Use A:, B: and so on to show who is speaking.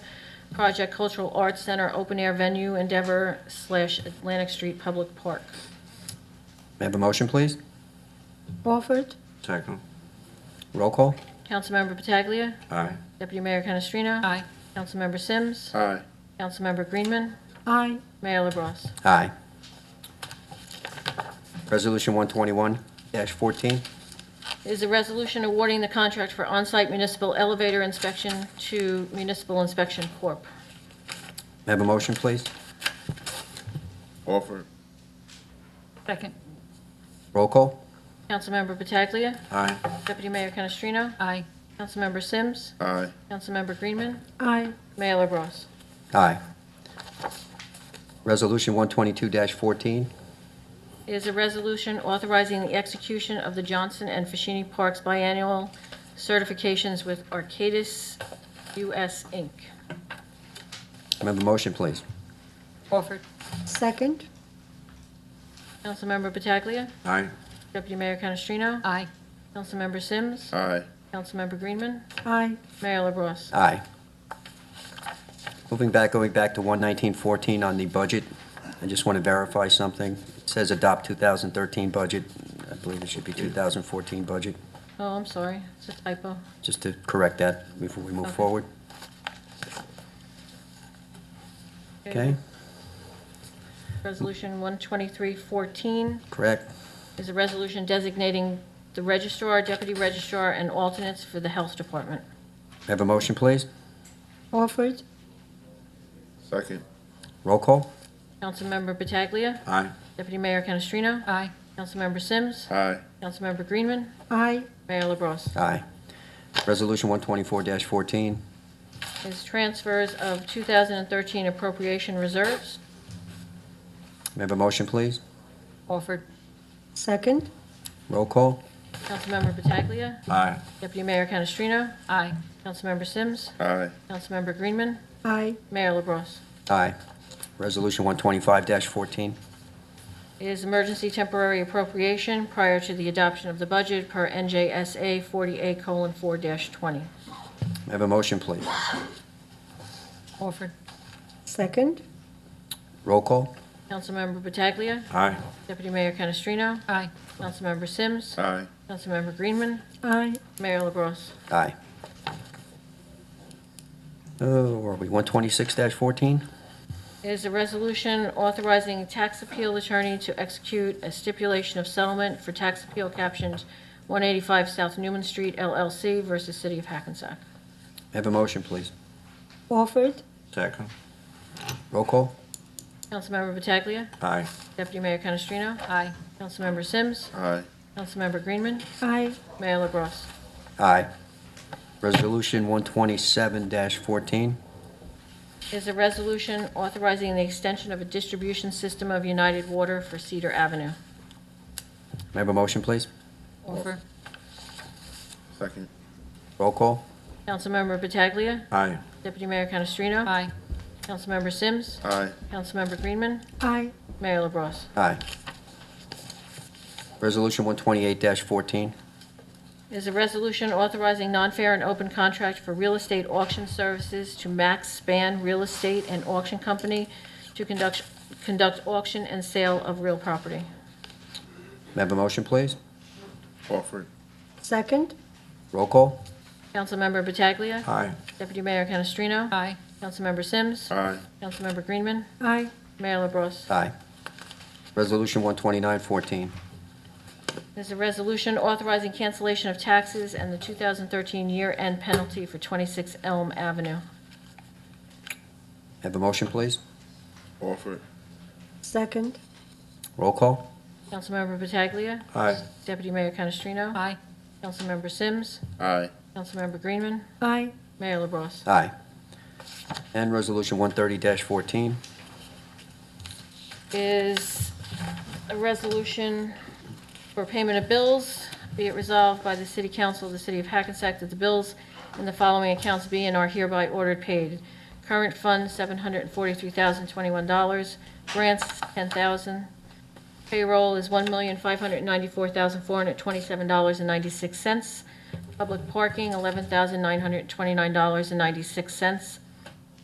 A: Project Cultural Arts Center Open Air Venue Endeavor slash Atlantic Street Public Park.
B: May I have a motion, please?
C: Orford,
D: Second.
B: Roll call?
A: Councilmember Pataglia.
D: Aye.
A: Deputy Mayor Canestrino.
E: aye,
A: Councilmember Sims.
D: Aye.
A: Councilmember Greenman.
C: aye.
A: Mayor LaBrus.
B: Aye. Resolution 121-14,
A: Is a resolution awarding the contract for on-site municipal elevator inspection to Municipal Inspection Corp.
B: may I have a motion, please?
D: Orford.
E: second,
B: Roll call?
A: Councilmember Pataglia.
D: Aye.
A: Deputy Mayor Canestrino.
E: aye,
A: Councilmember Sims.
D: Aye.
A: Councilmember Greenman.
C: Aye.
A: Mayor LaBrus.
B: Aye. Resolution 122-14,
A: is a resolution authorizing the execution of the Johnson and Fashini Parks biannual certifications with Arcadis US Inc.
B: may I have a motion, please?
E: Orford,
C: Second,
A: Councilmember Pataglia.
D: Aye.
A: Deputy Mayor Canestrino.
E: aye,
A: Councilmember Sims.
D: Aye.
A: Councilmember Greenman.
C: aye.
A: Mayor LaBrus.
B: Aye. Moving back, going back to 119-14 on the budget, I just want to verify something. It says adopt 2013 budget. I believe it should be 2014 budget,
A: Oh, I'm sorry, it's a typo.
B: just to correct that before we move
A: Okay.
B: forward. Okay,
A: Resolution 12314
B: correct?
A: is a resolution designating the registrar, deputy registrar, and alternates for the Health Department.
B: May I Have a motion, please?
C: Orford,
D: Second.
B: Roll call?
A: Councilmember Pataglia.
D: Aye.
A: Deputy Mayor Canestrino.
E: aye,
A: Councilmember Sims.
D: Aye.
A: Councilmember Greenman.
C: aye.
A: Mayor LaBrus.
B: Aye. Resolution 124-14,
A: Is transfers of 2013 appropriation reserves.
B: may I have a motion, please?
E: Orford,
C: Second,
B: Roll call?
A: Councilmember Pataglia.
D: Aye.
A: Deputy Mayor Canestrino.
E: aye,
A: Councilmember Sims.
D: Aye.
A: Councilmember Greenman.
C: aye.
A: Mayor LaBrus.
B: Aye. Resolution 125-14,
A: Is emergency temporary appropriation prior to the adoption of the budget per NJSA 40A:4-20.
B: may I have a motion, please?
E: Orford,
C: Second,
B: Roll call?
A: Councilmember Pataglia.
D: Aye.
A: Deputy Mayor Canestrino.
E: aye,
A: Councilmember Sims.
D: Aye.
A: Councilmember Greenman.
C: aye.
A: Mayor LaBrus.
B: Aye. Oh, where are we, 126-14?
A: is a resolution authorizing tax appeal attorney to execute a stipulation of settlement for tax appeal captioned 185 South Newman Street LLC versus City of Hackensack.
B: May I Have a motion, please?
C: Orford,
D: Second.
B: Roll call?
A: Councilmember Pataglia.
D: Aye.
A: Deputy Mayor Canestrino.
E: aye,
A: Councilmember Sims.
D: Aye.
A: Councilmember Greenman.
C: aye.
A: Mayor LaBrus.
B: Aye. Resolution 127-14,
A: Is a resolution authorizing the extension of a distribution system of United Water for Cedar Avenue.
B: may I have a motion, please?
E: Orford,
D: Second.
B: Roll call?
A: Councilmember Pataglia.
D: Aye.
A: Deputy Mayor Canestrino.
E: aye,
A: Councilmember Sims.
D: Aye.
A: Councilmember Greenman.
C: Aye.
A: Mayor LaBrus.
B: Aye. Resolution 128-14,
A: is a resolution authorizing non-fair and open contract for real estate auction services to Max Span Real Estate and Auction Company to conduct, conduct auction and sale of real property.
B: may I have a motion, please?
D: Orford.
C: Second,
B: Roll call?
A: Councilmember Pataglia.
D: Aye.
A: Deputy Mayor Canestrino.
E: aye,
A: Councilmember Sims.
D: Aye.
A: Councilmember Greenman.
C: aye.
A: Mayor LaBrus.
B: Aye. Resolution 129-14,
A: There's a resolution authorizing cancellation of taxes and the 2013 year-end penalty for 26 Elm Avenue.
B: have a motion, please?
D: Orford.
C: Second,
B: Roll call?
A: Councilmember Pataglia.
D: Aye.
A: Deputy Mayor Canestrino.
E: aye,
A: Councilmember Sims.
D: Aye.
A: Councilmember Greenman.
C: aye.
A: Mayor LaBrus.
B: Aye. And Resolution 130-14,
A: Is a resolution for payment of bills. Be it resolved by the City Council of the City of Hackensack that the bills in the following accounts be and are hereby ordered paid. Current fund, $743,021. Grants, $10,000. Payroll is $1,594,427.96. Public parking, $11,929.96.